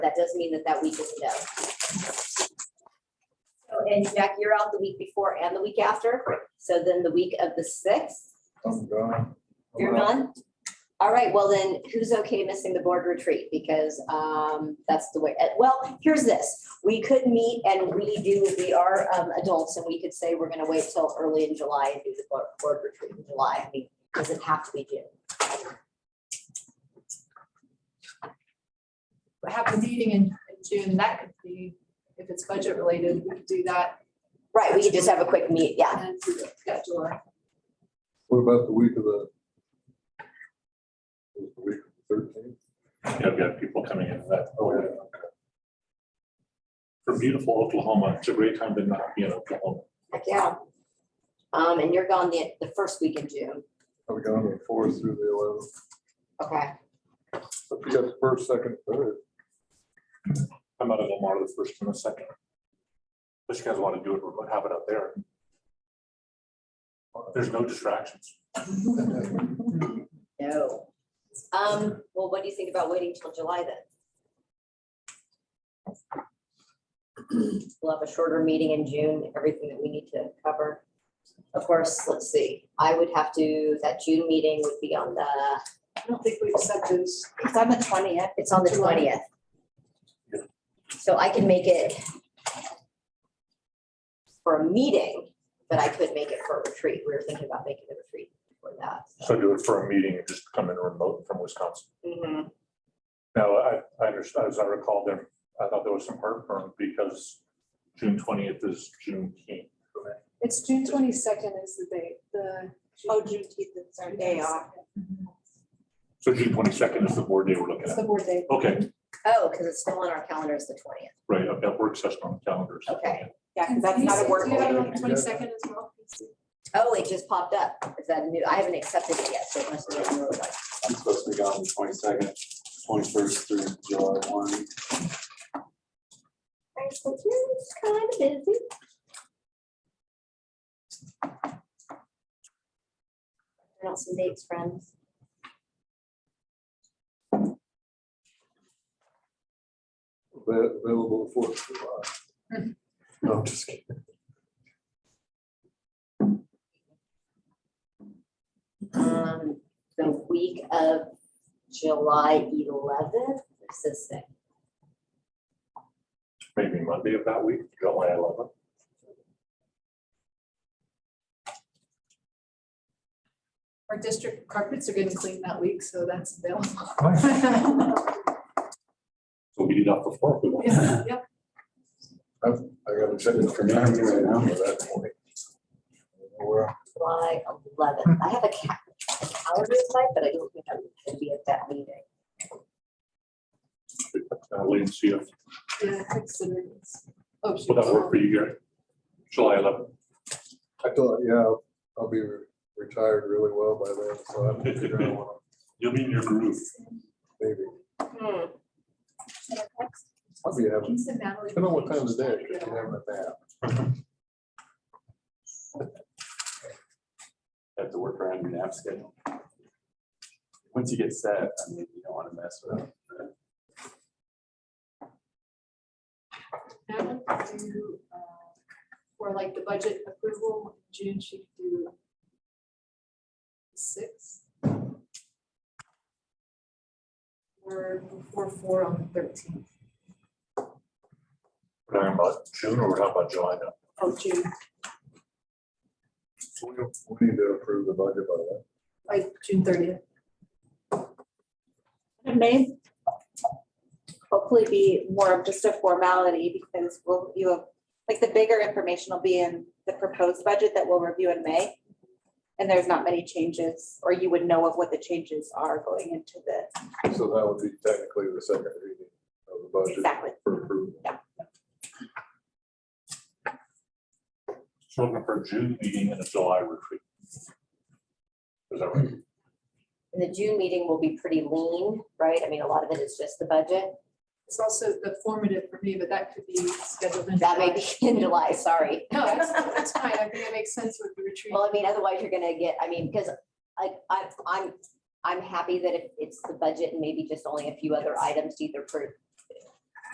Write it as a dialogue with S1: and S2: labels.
S1: that does mean that that week is a no. So, and Jack, you're out the week before and the week after, so then the week of the sixth,
S2: I'm gone.
S1: you're done? All right, well then, who's okay missing the board retreat? Because um, that's the way, eh, well, here's this. We could meet and we do, we are um, adults and we could say we're gonna wait till early in July and do the board- board retreat in July. I mean, does it have to be June?
S3: have a meeting in in June, that could be, if it's budget related, we could do that
S1: Right, we could just have a quick meet, yeah.
S3: and schedule it.
S2: What about the week of the? the Week of thirteen?
S4: Yeah, I've got people coming in that. oh, For beautiful Oklahoma, it's a great time to not be in Oklahoma.
S1: Heck, yeah. Um, and you're gone the, the first week in June,
S2: I'm gone the fourth through the eleventh.
S1: okay?
S2: But you got the first, second, third.
S4: I'm out of Lamar the first and the second. But you guys want to do it, we'll have it out there. There's no distractions.
S1: No. Um, well, what do you think about waiting till July then? We'll have a shorter meeting in June, everything that we need to cover. Of course, let's see, I would have to, that June meeting would be on the,
S3: I don't think we've said this.
S1: it's on the twentieth, it's on the
S3: July.
S1: twentieth. So I can make it for a meeting, but I could make it for a retreat. We were thinking about making the retreat for that.
S4: So do it for a meeting and just come in remote from Wisconsin.
S1: Mhm.
S4: Now, I, I understand, as I recall there, I thought there was some heartburn because June twentieth is June Juneteenth.
S3: It's June twenty-second is the date, the. Oh, Juneteenth is our day off.
S4: So June twenty-second is the board day we're looking
S3: It's
S4: at.
S3: the board day.
S4: Okay,
S1: Oh, because it's still on our calendar as the twentieth.
S4: right, I've got work session on the calendar. so-
S1: Okay.
S5: Yeah, because that's not a work.
S3: Do you have it on
S5: meeting.
S3: the twenty-second as well?
S1: Oh, it just popped up. Is that new? I haven't accepted it yet, so it must be on your website.
S6: I'm supposed to be gone the twenty-second, twenty-first through July one.
S1: It's kind of busy. Turn out some dates, friends.
S2: Ava- Available the fourth of July. No, I'm just kidding.
S1: Um, the week of July eleventh, this is the
S4: maybe Monday of that week, July eleventh.
S3: Our district carpets are getting cleaned that week, so that's available.
S4: So we did off the floor. if we want.
S3: Yeah, Yep,
S2: I gotta check it for me right now for that point. Well,
S1: July eleventh. I have a ca- a calendar site, but I don't think I'm gonna be at that meeting.
S4: Uh, Wait and see if,
S3: yeah, consider this. Oh,
S4: will that work for
S3: shoot.
S4: you, Gary? July eleventh.
S2: I thought, yeah, I'll be re- retired really well by then, so I'm figuring out
S4: You'll be in your groove.
S2: maybe.
S1: Hmm,
S2: I'll be having,
S3: Lisa, Natalie.
S2: depending on what time of the day, because you have a nap.
S6: Have to work around your nap schedule. Once you get set, I mean, you don't want to mess with it.
S3: That one could do, uh, For like the budget approval, June should do six. Or before four on the thirteenth
S4: We're talking about June or we're talking about July now?
S3: of oh, June,
S2: So We don't- we need to approve the budget by then.
S3: like June thirtieth.
S5: It may hopefully be more of just a formality because we'll, you have, like, the bigger information will be in the proposed budget that we'll review in May. And there's not many changes, or you would know of what the changes are going into the,
S2: So that would be technically the second reading of the budget
S5: exactly.
S2: for approval.
S4: So we're looking for a June meeting and a July retreat. Is that right?
S1: And the June meeting will be pretty lean, right? I mean, a lot of it is just the budget.
S3: It's also the formative for me, but that could be scheduled in.
S1: That may
S3: July.
S1: be in July, sorry.
S3: No, that's, that's fine, I think it makes sense with the retreat.
S1: Well, I mean, otherwise you're gonna get, I mean, because I, I, I'm, I'm happy that if it's the budget and maybe just only a few other items to either pro-